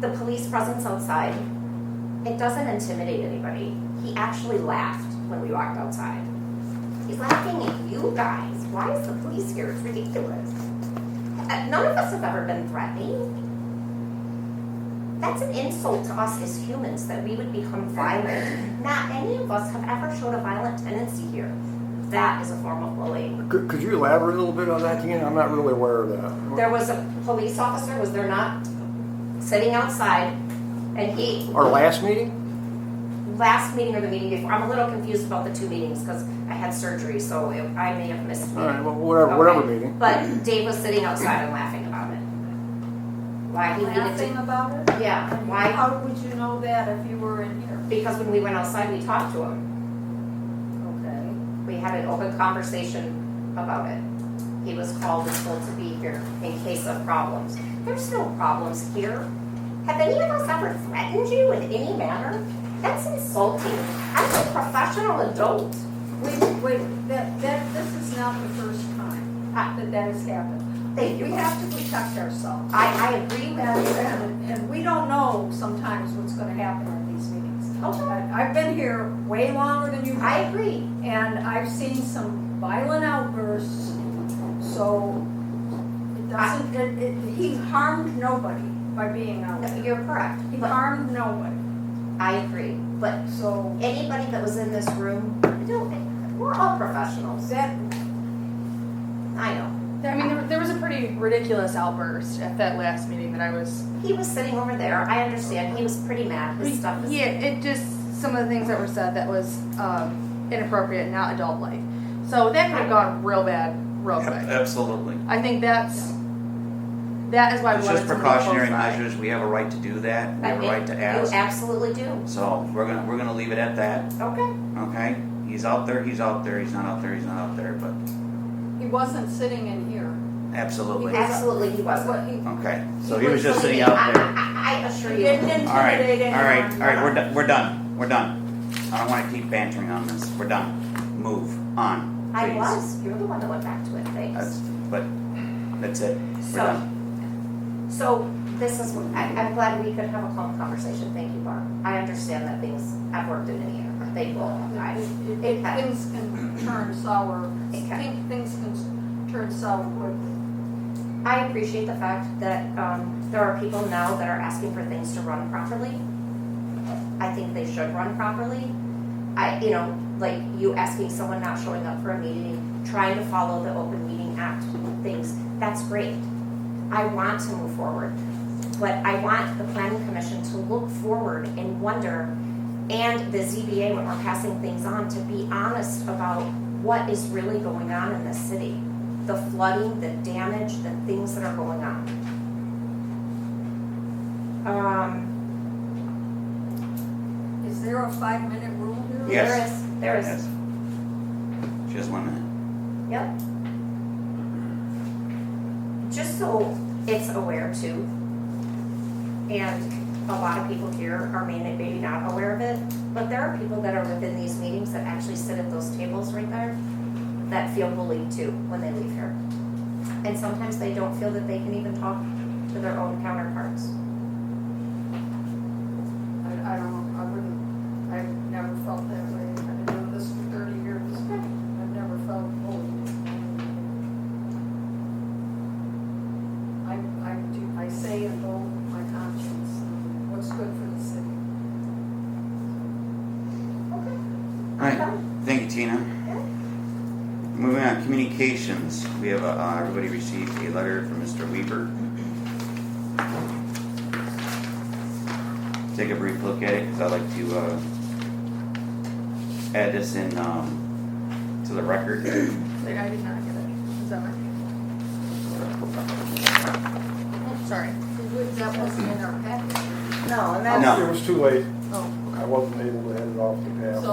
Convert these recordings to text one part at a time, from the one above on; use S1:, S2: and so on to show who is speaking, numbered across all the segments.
S1: the police presence outside, it doesn't intimidate anybody. He actually laughed when we walked outside. He's laughing at you guys. Why is the police here? It's ridiculous. Uh, None of us have ever been threatening. That's an insult to us as humans that we would become violent. Not any of us have ever showed a violent tendency here. That is a form of bullying.
S2: Could, could you elaborate a little bit on that again? I'm not really aware of that.
S1: There was a police officer, was there not, sitting outside, and he,
S2: Our last meeting?
S1: last meeting or the meeting before, I'm a little confused about the two meetings because I had surgery, so it- I may have missed. a
S2: All right,
S1: meeting.
S2: well, whatever, whatever
S1: Okay.
S2: meeting.
S1: But Dave was sitting outside and laughing about it. Why he needed
S3: Laughing
S1: to,
S3: about it?
S1: yeah,
S3: And
S1: why?
S3: How would you know that if you were in here?
S1: Because when we went outside, we talked to him.
S3: Okay.
S1: We had an open conversation about it. He was called and told to be here in case of problems. There's no problems here. Have any of us ever threatened you in any manner? That's insulting. I'm a professional adult.
S3: Wait, wait, that, that, this is not the first time that that has happened.
S1: Thank you.
S3: We have to protect ourselves.
S1: I, I agree with
S3: And,
S1: you.
S3: and, and we don't know sometimes what's gonna happen in these meetings.
S1: Okay.
S3: I- I've been here way longer than you
S1: I
S3: have,
S1: agree.
S3: and I've seen some violent outbursts, so it doesn't, it, it, he harmed nobody by being out there.
S1: You're correct.
S3: He
S1: But
S3: harmed nobody,
S1: I agree. But
S3: so.
S1: anybody that was in this room, no, we're all professionals.
S3: That,
S1: I know.
S4: I mean, there, there was a pretty ridiculous outburst at that last meeting that I was.
S1: He was sitting over there. I understand. He was pretty mad. His stuff is.
S4: Yeah, it just some of the things that were said that was um, inappropriate, not adult-like. So that could have gone real bad, real
S5: Ab-
S4: quick.
S5: Absolutely.
S4: I think that's that is why we
S5: It's
S4: wanted
S5: just
S4: somebody
S5: precautionary
S4: close by.
S5: measures. We have a right to do that. We
S1: I
S5: have a
S1: think
S5: right to ask.
S1: You absolutely do.
S5: So we're gonna, we're gonna leave it at that,
S1: Okay.
S5: okay? He's out there, he's out there, he's not out there, he's not out there, but
S3: he wasn't sitting in here.
S5: absolutely.
S3: He-
S1: Absolutely, he wasn't.
S3: What he-
S5: Okay, so he was just sitting out
S1: I,
S5: there.
S1: I, I assure
S3: He
S1: you.
S3: didn't
S5: All right,
S3: intimidate
S5: all
S3: anyone.
S5: right, all right, we're done, we're done, we're done. I don't wanna keep bantering on this. We're done. Move on, please.
S1: I was. You're the one that went back to it. Thanks.
S5: That's, but, that's it. We're
S1: So-
S5: done.
S1: So this is, I, I'm glad we could have a calm conversation. Thank you, Barb. I understand that things have worked in the air. They will. I,
S3: It- it- Things can turn sour,
S1: Okay.
S3: things can turn sour quickly.
S1: I appreciate the fact that um, there are people now that are asking for things to run properly. I think they should run properly. I, you know, like you asking someone not showing up for a meeting, trying to follow the open meeting act things, that's great. I want to move forward, but I want the planning commission to look forward and wonder, and the ZBA when we're passing things on, to be honest about what is really going on in this city the flooding, the damage, the things that are going on. Um,
S3: Is there a five-minute rule here?
S5: Yeah. Yes.
S1: there is, there is,
S5: Yes. Just one minute.
S1: yep. Just so it's aware too, and a lot of people here are may- maybe not aware of it, but there are people that are within these meetings that actually sit at those tables right there that feel bullied too when they leave here. And sometimes they don't feel that they can even talk to their own counterparts.
S3: I, I don't, I wouldn't, I've never felt that way. I've been doing this for thirty years. I've never felt bullied. I, I do, I say and go with my conscience, and what's good for the city.
S1: Okay.
S5: All right, thank you, Tina. Moving on, communications. We have, a- uh, everybody received a letter from Mr. Weaver. Take a brief look at it, because I'd like to, uh, add this in, um, to the record.
S4: Like, I did not get it. Is that my? Oh, Sorry.
S3: That wasn't in our package.
S1: No, and
S5: No.
S2: It was too late.
S4: Oh,
S2: I wasn't able to head it off the
S3: So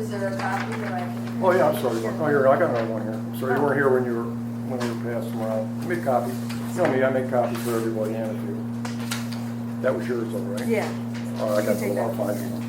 S3: is there a copy that I can?
S2: Oh, yeah, I'm sorry. Mark. Oh, here, I got another one here. I'm Sorry, you weren't here when you were, when we were passing around. Make copy. No, me, I make copies for everybody and if you. That was yours, all right?
S4: yeah.
S2: All right, I got
S4: You
S2: the
S4: take
S2: one,
S4: that.
S2: I'll find it.